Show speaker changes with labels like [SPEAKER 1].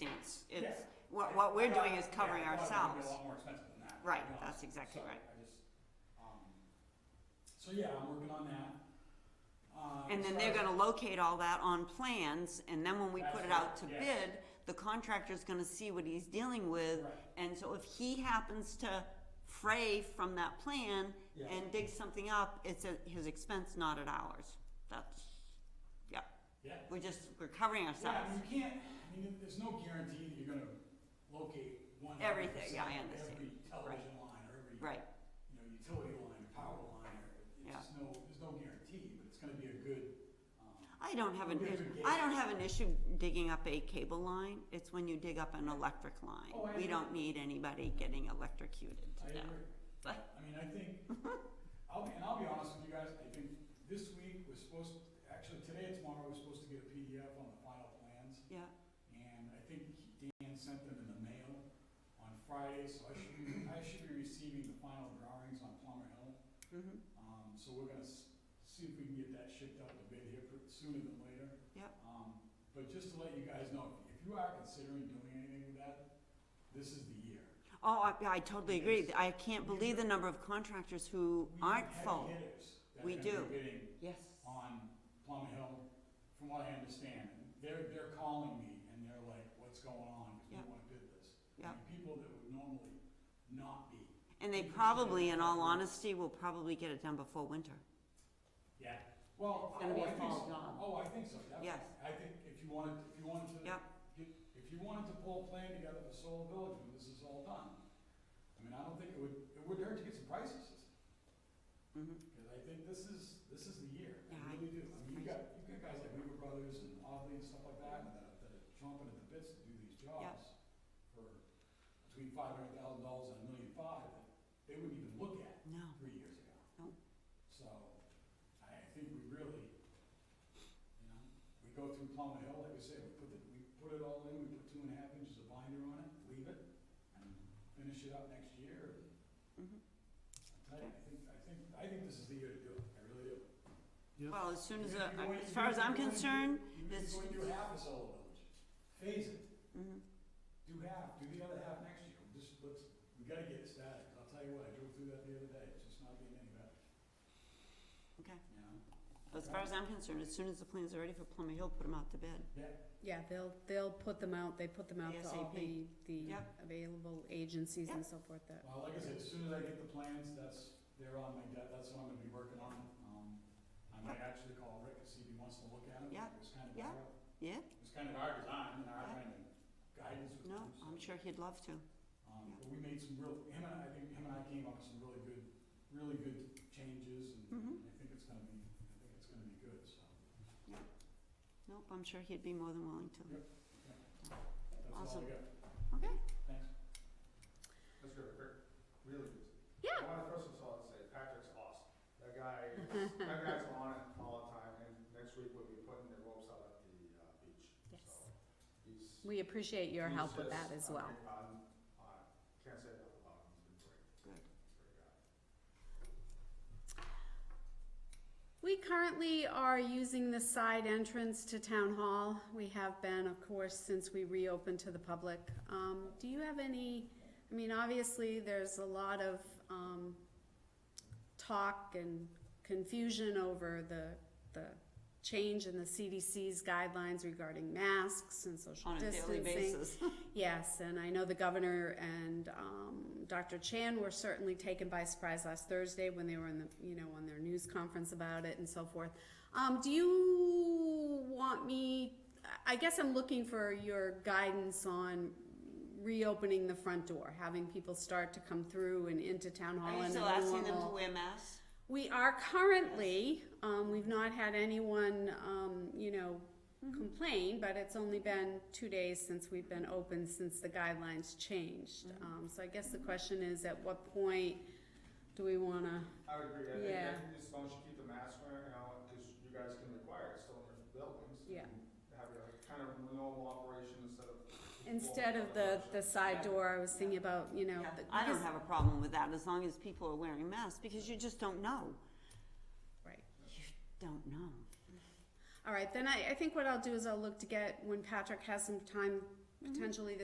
[SPEAKER 1] it's,
[SPEAKER 2] Yeah.
[SPEAKER 1] what, what we're doing is
[SPEAKER 2] Yeah,
[SPEAKER 1] covering
[SPEAKER 2] I thought it
[SPEAKER 1] ourselves.
[SPEAKER 2] was gonna be a lot more expensive than that. to be
[SPEAKER 1] Right,
[SPEAKER 2] honest.
[SPEAKER 1] that's exactly
[SPEAKER 2] So,
[SPEAKER 1] right.
[SPEAKER 2] I just, um, So yeah, I'm working on that. Uh,
[SPEAKER 1] And
[SPEAKER 2] as
[SPEAKER 1] then
[SPEAKER 2] far
[SPEAKER 1] they're
[SPEAKER 2] as-
[SPEAKER 1] gonna locate all that on plans, and then when we put it out to
[SPEAKER 2] Absolutely, yes.
[SPEAKER 1] bid, the contractor's gonna see what he's dealing with.
[SPEAKER 2] Right.
[SPEAKER 1] And so if he happens to fray from that plan
[SPEAKER 2] Yeah.
[SPEAKER 1] and dig something up, it's at his expense, not at ours. That's, yeah,
[SPEAKER 2] Yeah.
[SPEAKER 1] we're just, we're covering
[SPEAKER 2] Yeah, I
[SPEAKER 1] ourselves.
[SPEAKER 2] mean, you can't, I mean, there's no guarantee that you're gonna locate one hundred
[SPEAKER 1] Everything,
[SPEAKER 2] percent
[SPEAKER 1] yeah, I
[SPEAKER 2] of
[SPEAKER 1] understand.
[SPEAKER 2] every television line or every,
[SPEAKER 1] Right,
[SPEAKER 2] you know, utility line, or power line, or,
[SPEAKER 1] Yeah.
[SPEAKER 2] it's just no, there's no guarantee, but it's gonna be a good, um,
[SPEAKER 1] I don't have an,
[SPEAKER 2] We'll get
[SPEAKER 1] is-
[SPEAKER 2] to the
[SPEAKER 1] I don't have an issue digging up a cable line, it's when you dig up an electric
[SPEAKER 2] Oh, I
[SPEAKER 1] line. We don't need anybody getting electrocuted
[SPEAKER 2] I
[SPEAKER 1] to know.
[SPEAKER 2] agree.
[SPEAKER 1] But-
[SPEAKER 2] I mean, I think, I'll, and I'll be honest with you guys, I think this week was supposed, actually today and tomorrow, we're supposed to get a PDF on the final plans.
[SPEAKER 1] Yeah,
[SPEAKER 2] And I think Dan sent them in the mail on Friday, so I should, be- I should be receiving the final drawings on Plummer Hill.
[SPEAKER 1] mhm,
[SPEAKER 2] Um, so we're gonna s- see if we can get that shipped out a bit here pr- sooner than later.
[SPEAKER 1] Yep.
[SPEAKER 2] Um, but just to let you guys know, if you are considering doing anything with that, this is the year.
[SPEAKER 1] oh, I, I totally agree,
[SPEAKER 2] Because
[SPEAKER 1] I can't believe the number of contractors who
[SPEAKER 2] We have
[SPEAKER 1] aren't
[SPEAKER 2] heavy
[SPEAKER 1] full,
[SPEAKER 2] hitters that
[SPEAKER 1] We
[SPEAKER 2] are gonna be
[SPEAKER 1] do.
[SPEAKER 2] bidding
[SPEAKER 1] yes.
[SPEAKER 2] on Plum Hill, from what I understand, they're, they're calling me and they're like, what's going on, because
[SPEAKER 1] Yeah.
[SPEAKER 2] we wanna bid this. I
[SPEAKER 1] Yeah.
[SPEAKER 2] mean, People that would normally not be,
[SPEAKER 1] And they
[SPEAKER 2] Interesting.
[SPEAKER 1] probably, in all honesty, will probably get it done before winter.
[SPEAKER 2] yeah, well,
[SPEAKER 1] It's
[SPEAKER 2] oh,
[SPEAKER 1] gonna be
[SPEAKER 2] I
[SPEAKER 1] a
[SPEAKER 2] think
[SPEAKER 1] fall
[SPEAKER 2] so,
[SPEAKER 1] job.
[SPEAKER 2] oh, I think so, definitely.
[SPEAKER 1] Yes.
[SPEAKER 2] I think if you wanted, if you wanted to,
[SPEAKER 1] Yep.
[SPEAKER 2] get- if you wanted to pull a plan together for Solar Village, when this is all done, I mean, I don't think it would, it wouldn't hurt to get some prices,
[SPEAKER 1] Mhm.
[SPEAKER 2] Because I think this is, this is the year,
[SPEAKER 1] Yeah, I-
[SPEAKER 2] I really do. I mean,
[SPEAKER 1] I-
[SPEAKER 2] you've got, you've got guys like Weaver Brothers and Oddly and stuff like that, that are- that are chomping at the bits to do these jobs for between five hundred thousand dollars and a million five, that they wouldn't even look at
[SPEAKER 1] No,
[SPEAKER 2] three years ago.
[SPEAKER 1] No.
[SPEAKER 2] So, I think we really, you know, we go through Plum Hill, like I said, we put the, we put it all in, we put two and a half inches of binder on it, leave it, and finish it up next year, and
[SPEAKER 1] mhm.
[SPEAKER 2] I tell you, I think, I think, I think this is the year to do it, I really do.
[SPEAKER 1] Well, as soon as,
[SPEAKER 2] If
[SPEAKER 1] uh,
[SPEAKER 2] you're going-
[SPEAKER 1] as far as I'm
[SPEAKER 2] if you're going to do-
[SPEAKER 1] concerned,
[SPEAKER 2] Even if
[SPEAKER 1] it's-
[SPEAKER 2] you're going to do half a solar village, phase it,
[SPEAKER 1] mhm,
[SPEAKER 2] do half, do the other half next year, just, let's, we gotta get it started, I'll tell you what, I drove through that the other day, it's just not getting any better,
[SPEAKER 1] okay.
[SPEAKER 2] you know?
[SPEAKER 1] As far as I'm concerned, as soon as the plans are ready for Plummer Hill, put them out to bid.
[SPEAKER 2] Yeah,
[SPEAKER 3] Yeah, they'll, they'll put them out, they put them out to all the,
[SPEAKER 1] ASAP.
[SPEAKER 3] the
[SPEAKER 1] Yep.
[SPEAKER 3] available agencies and so forth that,
[SPEAKER 2] well, like I said, as soon as I get the plans, that's, they're on my, de- that's what I'm gonna be working on, um, I might actually call Rick and see if he wants to look at it,
[SPEAKER 1] Yeah,
[SPEAKER 2] it was kind of
[SPEAKER 1] yeah.
[SPEAKER 2] our,
[SPEAKER 1] Yeah?
[SPEAKER 2] it was kind of our design and our
[SPEAKER 1] Yeah.
[SPEAKER 2] kind of guidance with
[SPEAKER 1] No,
[SPEAKER 2] it, so-
[SPEAKER 1] I'm sure he'd love to.
[SPEAKER 2] Um,
[SPEAKER 1] Yeah.
[SPEAKER 2] but we made some real, him and I, I think him and I came up with some really good, really good changes and
[SPEAKER 1] Mhm.
[SPEAKER 2] I think it's gonna be, I think it's gonna be good, so.
[SPEAKER 1] Nope, I'm sure he'd be more than willing to.
[SPEAKER 2] Yep. That's all
[SPEAKER 1] Awesome.
[SPEAKER 2] I got.
[SPEAKER 1] Okay.
[SPEAKER 2] Thanks.
[SPEAKER 4] Let's go quick, really good.
[SPEAKER 3] Yeah.
[SPEAKER 4] I wanna throw some salt and say Patrick's awesome. That guy, is- that guy's on it all the time, and next week we'll be putting the ropes out at the, uh, beach,
[SPEAKER 3] Yes.
[SPEAKER 4] so. He's.
[SPEAKER 3] we appreciate your
[SPEAKER 4] he's
[SPEAKER 3] help with
[SPEAKER 4] just-
[SPEAKER 3] that as
[SPEAKER 4] I
[SPEAKER 3] well.
[SPEAKER 4] mean, I'm- I can't say enough about him, he's been great.
[SPEAKER 1] Good.
[SPEAKER 4] Great guy.
[SPEAKER 3] We currently are using the side entrance to town hall. We have been, of course, since we reopened to the public. Um, do you have any, I mean, obviously, there's a lot of, um, talk and confusion over the, the change in the CDC's guidelines regarding masks and social
[SPEAKER 1] On a
[SPEAKER 3] distancing.
[SPEAKER 1] daily basis.
[SPEAKER 3] Yes, and I know the governor and um, Dr. Chan were certainly taken by surprise last Thursday when they were in the, you know, on their news conference about it and so forth. Um, do you want me? I guess I'm looking for your guidance on reopening the front door, having people start to come through and into town hall.
[SPEAKER 1] Are you
[SPEAKER 3] in a
[SPEAKER 1] still asking them to
[SPEAKER 3] normal-
[SPEAKER 1] wear masks?
[SPEAKER 3] we are currently, um, we've not had anyone, um, you know,
[SPEAKER 1] Mm-hmm.
[SPEAKER 3] complain, but it's only been two days since we've been open, since the guidelines changed.
[SPEAKER 1] Mm-hmm.
[SPEAKER 3] Um, so I guess the question is, at what point do we wanna,
[SPEAKER 4] I would agree, I think
[SPEAKER 3] Yeah.
[SPEAKER 4] that as long as you keep the mask wearing, you know, cause you guys can require it still in the buildings.
[SPEAKER 3] Yeah.
[SPEAKER 4] and Have your kind of normal operation instead of.
[SPEAKER 3] instead of the, the side door, I was thinking about, you know.
[SPEAKER 1] Yeah,
[SPEAKER 3] the-
[SPEAKER 1] I don't
[SPEAKER 3] because-
[SPEAKER 1] have a problem with that, as long as people are wearing masks, because you just don't know.
[SPEAKER 3] Right.
[SPEAKER 1] You don't know. Mm-hmm.
[SPEAKER 3] All right, then I, I think what I'll do is I'll look to get, when Patrick has some time, potentially this